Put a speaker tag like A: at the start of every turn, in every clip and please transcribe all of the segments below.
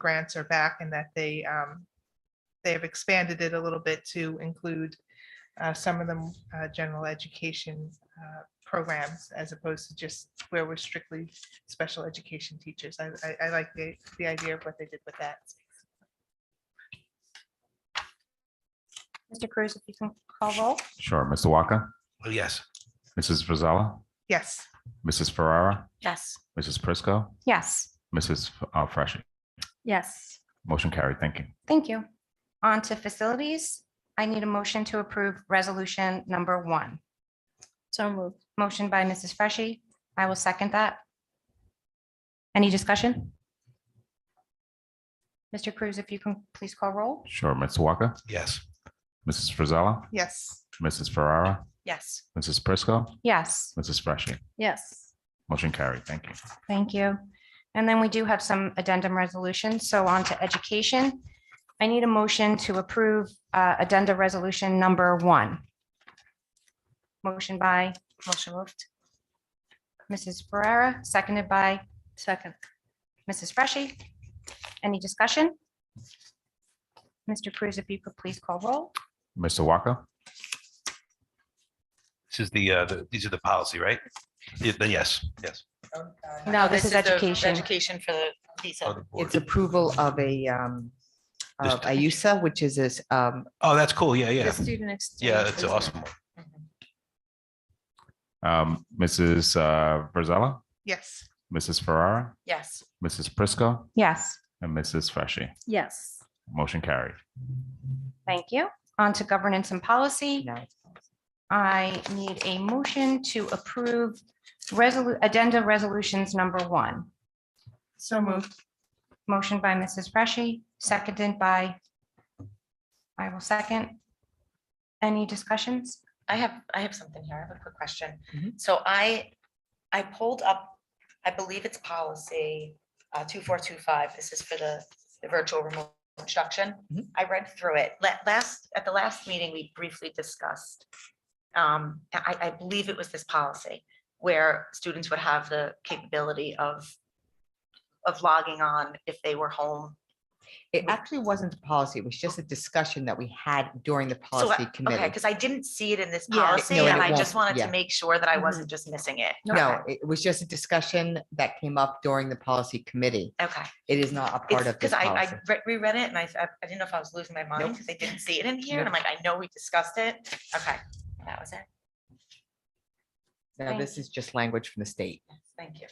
A: grants are back and that they, um, they have expanded it a little bit to include uh, some of the uh, general education uh, programs as opposed to just where we're strictly special education teachers. I, I, I like the, the idea of what they did with that.
B: Mr. Cruz, if you can call roll.
C: Sure. Mr. Walker,
D: Yes.
C: Mrs. Frizella,
A: Yes,
C: Mrs. Ferrara,
B: Yes.
C: Mrs. Prisco,
B: Yes.
C: Mrs. F- uh, Freshy.
B: Yes.
C: Motion carried. Thank you.
B: Thank you. On to facilities. I need a motion to approve resolution number one. So moved. Motion by Mrs. Freshy. I will second that. Any discussion? Mr. Cruz, if you can please call roll.
C: Sure. Mr. Walker,
D: Yes.
C: Mrs. Frizella,
A: yes,
C: Mrs. Ferrara,
B: Yes.
C: Mrs. Prisco,
B: Yes.
C: Mrs. Freshy.
B: Yes.
C: Motion carried. Thank you.
B: Thank you. And then we do have some addendum resolutions. So on to education. I need a motion to approve uh, addenda resolution number one. Motion by. Motion moved. Mrs. Ferrera, seconded by. Second. Mrs. Freshy. Any discussion? Mr. Cruz, if you could please call roll.
C: Mr. Walker,
D: This is the, uh, the- these are the policy, right? Yeah, Then yes, yes.
B: No, this is
E: Oh, the
B: education.
E: Education for the
D: Oh,
E: visa.
D: the board.
F: It's approval of a, um,
D: This-
F: of IUSA, which is this, um,
D: Oh, that's cool. Yeah, yeah.
E: student. exchange
D: Yeah, that's
E: visa.
D: awesome.
C: um, Mrs. uh, Frizella,
A: yes,
C: Mrs. Ferrara,
E: Yes.
C: Mrs. Prisco,
B: Yes.
C: and Mrs. Freshy.
E: Yes.
C: Motion carried.
B: Thank you. On to governance and policy.
F: no,
B: I need a motion to approve resolu- addenda resolutions number one.
A: so moved,
B: Motion by Mrs. Freshy, seconded by, I will second. Any discussions?
E: I have, I have something here. I have a quick question.
B: Mm-hmm.
F: Mhm.
E: So I, I pulled up, I believe it's policy uh, 2425. This is for the the virtual remote instruction.
B: Mm-hmm.
F: Mhm.
E: I read through it. La- Last, at the last meeting, we briefly discussed. um, I, I believe it was this policy where students would have the capability of, of logging on if they were home
F: it actually wasn't a policy. It was just a discussion that we had during the
E: So,
F: policy
E: Okay,
F: committee.
E: because I didn't see it in this
F: no,
E: policy,
F: and
E: and
F: it
E: I just
F: won't,
E: wanted to
F: yeah. Mm-hmm.
E: make sure that I wasn't just missing it.
F: No, it was just a discussion that came up during the policy committee.
E: Okay,
F: It is not a part
E: it's
F: of
E: because
F: this
E: I, I
F: policy.
E: re- reread it and I, I- I didn't know if I was losing my mind because I didn't see it in here, and I'm like, I know we discussed it. Okay, that was it.
F: No, this is just language from the state.
E: Thank you.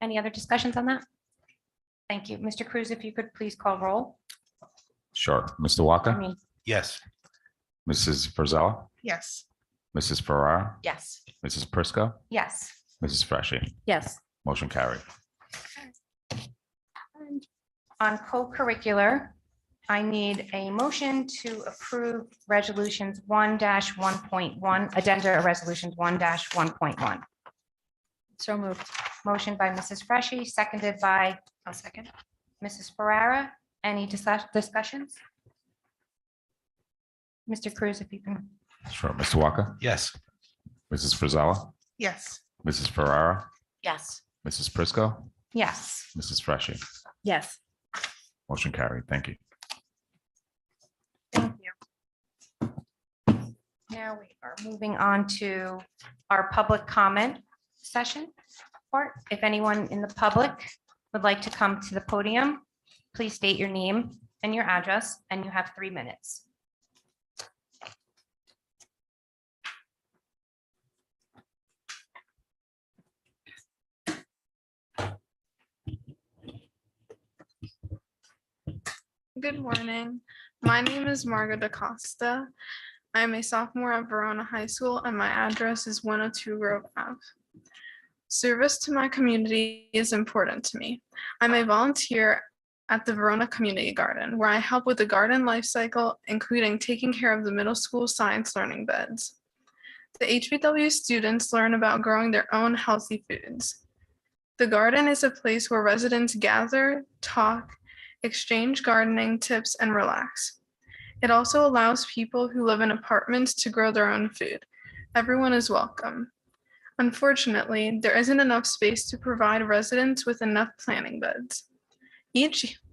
B: Any other discussions on that? Thank you. Mr. Cruz, if you could please call roll.
C: Sure. Mr.
B: I
C: Walker,
B: mean,
D: Yes.
C: Mrs. Frizella,
A: yes,
C: Mrs. Ferrara,
E: Yes.
C: Mrs. Prisco,
B: Yes.
C: Mrs. Freshy.
B: Yes.
C: Motion carried.
B: On co-curricular, I need a motion to approve resolutions one one point one, addenda resolutions one one point one. So moved. Motion by Mrs. Freshy, seconded by
E: I'll second.
B: Mrs. Ferrara. Any discuss- discussions? Mr. Cruz, if you can.
C: Sure. Mr. Walker,
D: Yes.
C: Mrs. Frizella,
A: yes,
C: Mrs. Ferrara,
E: Yes.
C: Mrs. Prisco,
B: Yes.
C: Mrs. Freshy.
E: Yes.
C: Motion carried. Thank you.
B: Thank you. Now we are moving on to our public comment session. Or if anyone in the public would like to come to the podium, please state your name and your address, and you have three minutes.
G: Good morning. My name is Margo DaCosta. I'm a sophomore at Verona High School and my address is 102 Grove Ave. Service to my community is important to me. I'm a volunteer at the Verona Community Garden, where I help with the garden life cycle, including taking care of the middle school science learning beds. The HBW students learn about growing their own healthy foods. The garden is a place where residents gather, talk, exchange gardening tips, and relax. It also allows people who live in apartments to grow their own food. Everyone is welcome. Unfortunately, there isn't enough space to provide residents with enough planting beds. Each